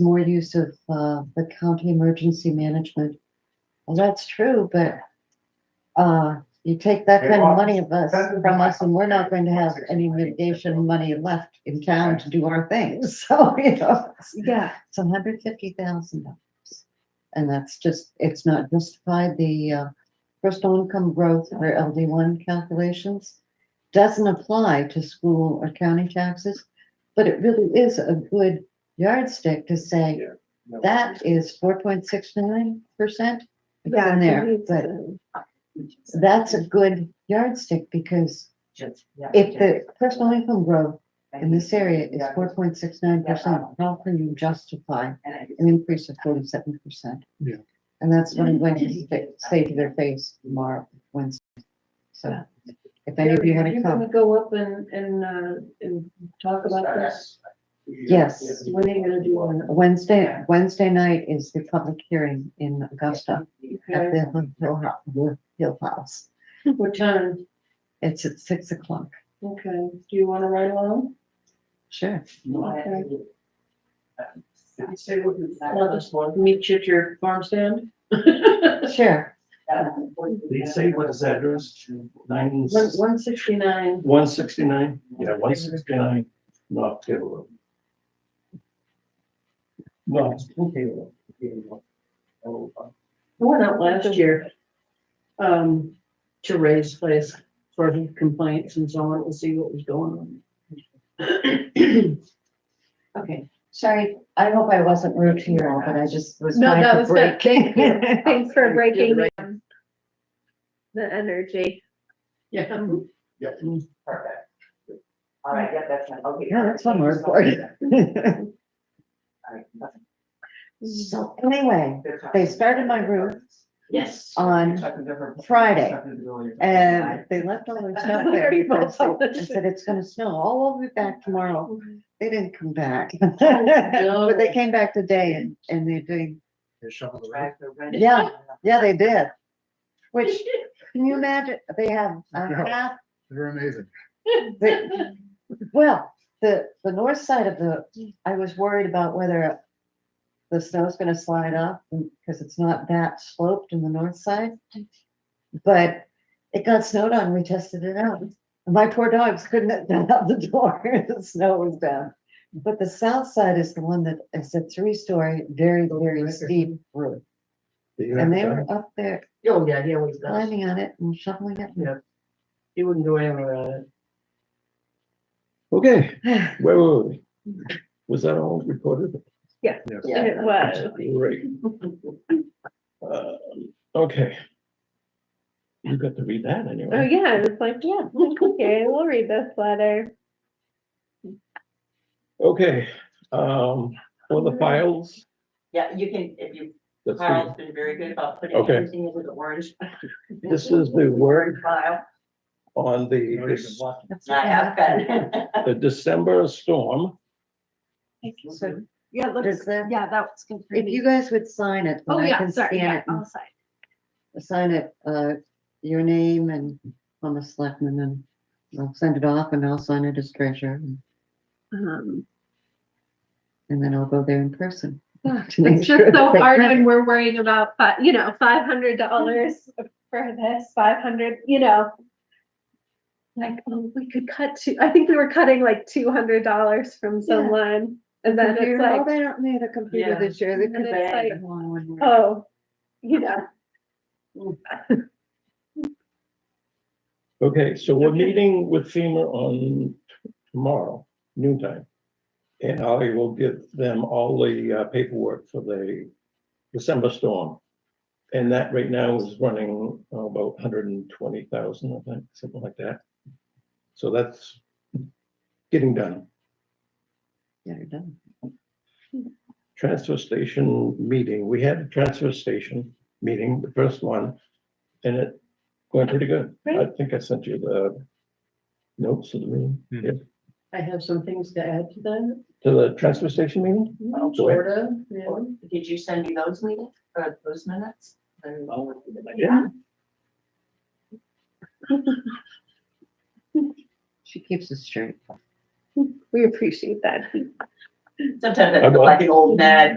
more use of uh, the county emergency management. Well, that's true, but uh, you take that kind of money of us, from us, and we're not going to have any mitigation money left in town to do our things, so, you know. Yeah, It's hundred fifty thousand dollars. And that's just, it's not justified, the uh, personal income growth or LD one calculations doesn't apply to school or county taxes, but it really is a good yardstick to say Yeah. No, that is four point six nine percent. yeah. in there, it's, but uh, that's a good yardstick because if the personal income growth in this area is four point six nine percent, how can you justify an increase of forty-seven percent. Yeah. And that's what I'm going to say- say to their face tomorrow, Wednesday. So if any of you want Are to gonna come, Go up and, and, uh, and talk about this. yes, When are you gonna do one? Wednesday, Wednesday night is the public hearing in Augusta at Okay, the Hill House, the Hill House. What time? It's at six o'clock. Okay, do you wanna ride along? Sure. I'll just meet you at your farm stand? Sure. They say what is that address? Nine, One, one sixty-nine, one sixty-nine? Yeah, one sixty-nine, North Taylor Road. No, it's not Taylor Road. Oh, uh, I went out last year, um, to Ray's place for his complaints and so on, to see what was going on. Okay. Sorry, I hope I wasn't rude to you all, but I just was No, that trying to was good. break. Thanks for breaking right. um, the energy. Yeah. Yeah. Perfect. All right, yeah, that's, fine. okay. Yeah, that's one word for it. All right, that's So anyway, good talk. they started my roof Yes. on Talking to her- Friday. Um, talking to Bill, you're talking to And Mike. they left all their snow there Very well. because they- and said it's gonna snow. Oh, we'll be back tomorrow. They didn't come back. no. But they came back today and, and they're doing, they shovel the road. Right, they're ready. Yeah. yeah, they did. Which, can you imagine, they have a No. half, They're amazing. they- well, the, the north side of the, I was worried about whether the snow's gonna slide up because it's not that sloped in the north side. But it got snowed on, we tested it out. And My poor dogs couldn't get out the door, the snow was down. But the south side is the one that is a three-story, very, very steep roof. And they were up there Oh, yeah, he always does. climbing on it and shoveling He wouldn't go anywhere on it. Okay, it. where were we? Was that all recorded? Yeah. It was. Great. Uh, Okay. You got to read that Oh, anyway. yeah, it's like, yeah, okay, we'll read this letter. Okay, um, for the files. Yeah, you can, if you, let's see. Carl's been very good about putting Okay. everything into the orange. This is the word File, on the, I have that. the December storm. So Yeah, does that, yeah, that was good. Oh, if you guys would sign it, then I can scan it and sign. sign it, uh, your name and on the selectman and I'll send it off and I'll sign it as treasurer and- Um, and then I'll go there in person. to make It's sure just so that they hard print when we're worrying about, fi- you know, five hundred dollars for this, five hundred, you know. Like, oh, we could cut to, I think we were cutting like two hundred dollars from someone and then it's computer. Oh, like, they don't need a computer Yeah. this year. They And could it's buy like, one when we're- oh, you know. Okay, so we're Okay. meeting with FEMA on tomorrow, noontime. And I will give them all the uh, paperwork for the December storm. And that right now is running uh, about hundred and twenty thousand, I think, something like that. So that's getting done. Yeah, you're done. Transfer station meeting, we had a transfer station meeting, the first one, and it went pretty good. I think I sent you the notes of the meeting. Mhm. Yeah. I have some things to add to that. To the transfer station meeting? Oh, Sure. Sort of, yeah. Did you send me those meetings, uh, those minutes? And- She keeps it straight. We appreciate that. Sometimes I I feel will. like an old nag